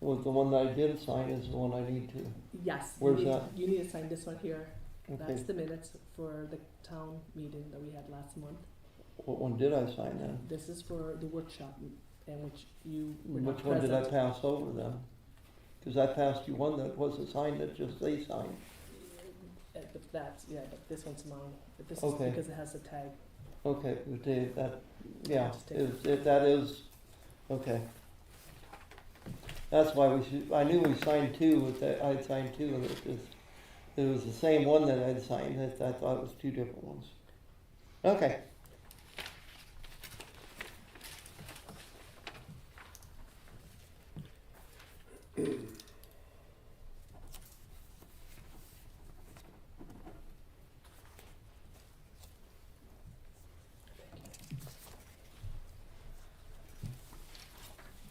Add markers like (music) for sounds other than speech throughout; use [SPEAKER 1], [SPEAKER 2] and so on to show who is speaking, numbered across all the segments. [SPEAKER 1] was the one that I did sign is the one I need to,
[SPEAKER 2] Yes. you
[SPEAKER 1] Where's
[SPEAKER 2] need-
[SPEAKER 1] that?
[SPEAKER 2] You need to sign this one here. That's
[SPEAKER 1] okay,
[SPEAKER 2] the minutes for the town meeting that we had last month.
[SPEAKER 1] what one did I sign then?
[SPEAKER 2] This is for the workshop m- in which you were not
[SPEAKER 1] Which one did I
[SPEAKER 2] present.
[SPEAKER 1] pass over then? Cause I passed you one that wasn't signed, that just they signed,
[SPEAKER 2] Uh, But that's, yeah, but this one's mine. But this is
[SPEAKER 1] Okay.
[SPEAKER 2] because it has the tag.
[SPEAKER 1] okay, but they, that, yeah,
[SPEAKER 2] Just take
[SPEAKER 1] if, if that is, okay. That's why we should, I knew we signed two, but that, I signed two and it just, it was the same one that I'd signed, that, I thought it was two different ones. Okay,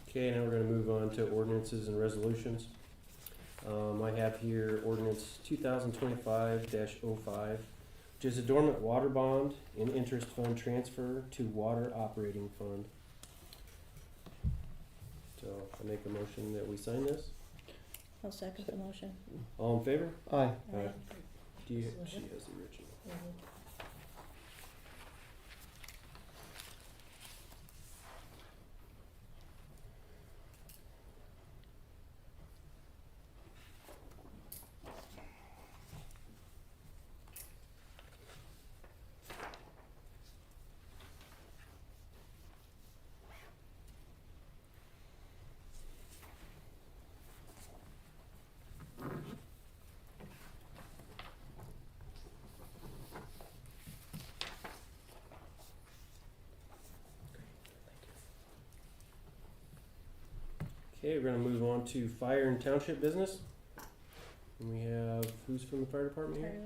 [SPEAKER 3] Okay, now we're gonna move on to ordinances and resolutions. Um, I have here ordinance two thousand twenty-five 5 which is a dormant water bond and interest fund transfer to water operating fund. So I make a motion that we sign this.
[SPEAKER 4] I'll second the motion.
[SPEAKER 3] All in favor?
[SPEAKER 1] aye,
[SPEAKER 3] Aye. Do you,
[SPEAKER 4] Mhm.
[SPEAKER 3] she has the original.
[SPEAKER 4] Mhm.
[SPEAKER 3] Okay, we're gonna move on to fire and township business. And we have, who's from the fire department here?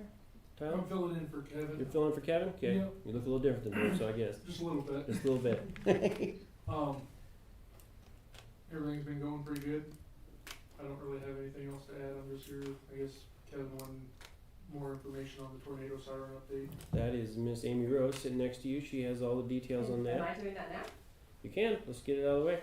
[SPEAKER 4] Tyler,
[SPEAKER 3] Tyler?
[SPEAKER 5] filling in for Kevin,
[SPEAKER 3] You're filling for Kevin? Okay,
[SPEAKER 5] Yeah.
[SPEAKER 3] you look a little different than him, so I guess,
[SPEAKER 5] just a little bit.
[SPEAKER 3] just a little bit.
[SPEAKER 5] Um, everything's been going pretty good. I don't really have anything else to add. I'm just here, I guess Kevin wanted more information on the tornado siren update.
[SPEAKER 3] That is Miss Amy Rose sitting next to you. She has all the details on
[SPEAKER 6] Am
[SPEAKER 3] that.
[SPEAKER 6] I doing that now?
[SPEAKER 3] You can. Let's get it out of the way.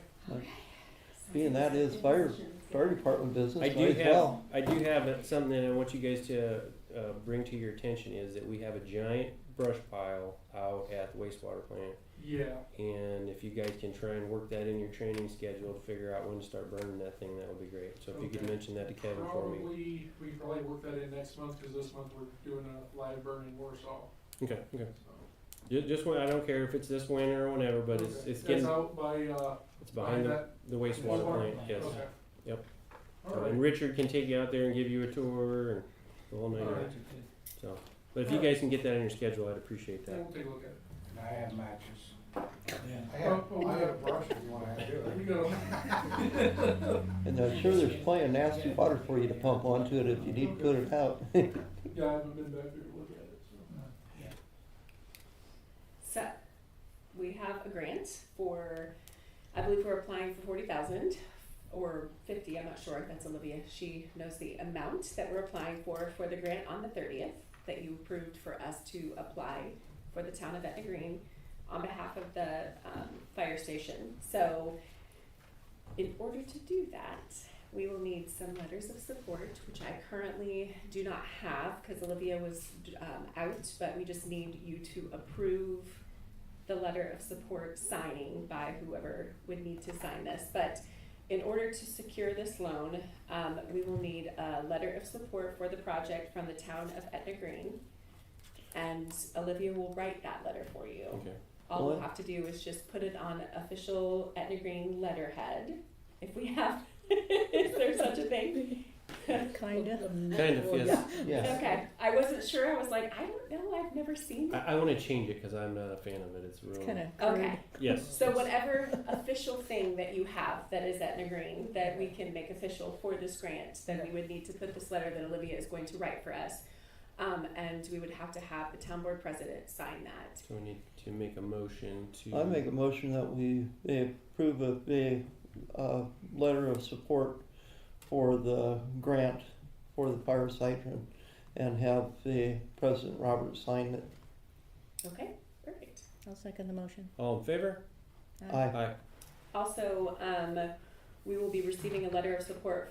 [SPEAKER 1] being that is fire, fire department business,
[SPEAKER 3] I
[SPEAKER 1] might
[SPEAKER 3] do
[SPEAKER 1] as
[SPEAKER 3] have.
[SPEAKER 1] well,
[SPEAKER 3] I do have something that I want you guys to uh, bring to your attention is that we have a giant brush pile out at the wastewater plant,
[SPEAKER 5] Yeah,
[SPEAKER 3] and if you guys can try and work that in your training schedule to figure out when to start burning that thing, that would be great. So if you could
[SPEAKER 5] Okay.
[SPEAKER 3] mention that to Kevin for me.
[SPEAKER 5] probably, we can probably work that in next month, cause this month we're doing a live burn in Warsaw,
[SPEAKER 3] Okay. Okay.
[SPEAKER 5] so.
[SPEAKER 3] Ju- Just when I don't care if it's this winter or whenever, but it's
[SPEAKER 5] Okay.
[SPEAKER 3] it's getting
[SPEAKER 5] That's out by, uh,
[SPEAKER 3] it's
[SPEAKER 5] by
[SPEAKER 3] behind the,
[SPEAKER 5] that,
[SPEAKER 3] the wastewater
[SPEAKER 5] Wastewater
[SPEAKER 3] plant. Yes.
[SPEAKER 5] okay.
[SPEAKER 3] Yep.
[SPEAKER 5] Alright,
[SPEAKER 3] And Richard can take you out there and give you a tour and the whole nine yards.
[SPEAKER 5] alright,
[SPEAKER 3] So, but if you guys can get that on your schedule, I'd appreciate
[SPEAKER 5] yeah,
[SPEAKER 3] that.
[SPEAKER 5] we'll take a look at it.
[SPEAKER 7] I have matches. I
[SPEAKER 5] Oh,
[SPEAKER 7] have,
[SPEAKER 5] oh,
[SPEAKER 7] I
[SPEAKER 5] we
[SPEAKER 7] have
[SPEAKER 5] have-
[SPEAKER 7] brush if you wanna do
[SPEAKER 5] There
[SPEAKER 7] it.
[SPEAKER 5] you go.
[SPEAKER 1] and I'm sure there's plenty of nasty water for you to pump onto it if you need to put it out. (laughs)
[SPEAKER 5] Yeah, I haven't been back there to look at it, so.
[SPEAKER 6] So, we have a grant for, I believe we're applying for forty thousand or fifty, I'm not sure, that's Olivia, she knows the amount that we're applying for, for the grant on the thirtieth, that you approved for us to apply (laughs) for the town of Etna Green on behalf of the, um, fire station, so in order to do that, we will need some letters of support, which I currently do not have because Olivia was um, out, but we just need you to approve the letter of support signing by whoever would need to sign this. But in order to secure this loan, um, we will need a letter of support for the project from the town of Etna Green. And Olivia will write that letter for you.
[SPEAKER 3] Okay.
[SPEAKER 6] All we'll
[SPEAKER 1] Well-
[SPEAKER 6] have to do is just put it on official Etna Green letterhead, if we have, (laughs) is there such a thing?
[SPEAKER 4] Kinda.
[SPEAKER 3] Kind of, yes.
[SPEAKER 1] Yeah.
[SPEAKER 6] Okay, I wasn't sure, I was like, I don't know, I've never seen
[SPEAKER 3] I,
[SPEAKER 6] that.
[SPEAKER 3] I want to change it because I'm not a fan of it. It's real.
[SPEAKER 4] It's kinda
[SPEAKER 6] Okay,
[SPEAKER 4] crude.
[SPEAKER 3] Yes.
[SPEAKER 6] so whatever official thing that you have that is Etna Green, that we can make official for this grant, then we would need to put this letter that Olivia is going to write for us. Um, and we would have to have the town board president sign that.
[SPEAKER 3] So we need to make a motion to.
[SPEAKER 1] I make a motion that we, they approve of the, uh, letter of support for the grant for the fire hydrant and have the President Roberts sign it.
[SPEAKER 6] Okay, perfect.
[SPEAKER 4] I'll second the motion.
[SPEAKER 1] Uh,
[SPEAKER 3] All in favor?
[SPEAKER 1] Aye.
[SPEAKER 3] Aye.
[SPEAKER 6] Also, um, we will be receiving a letter of support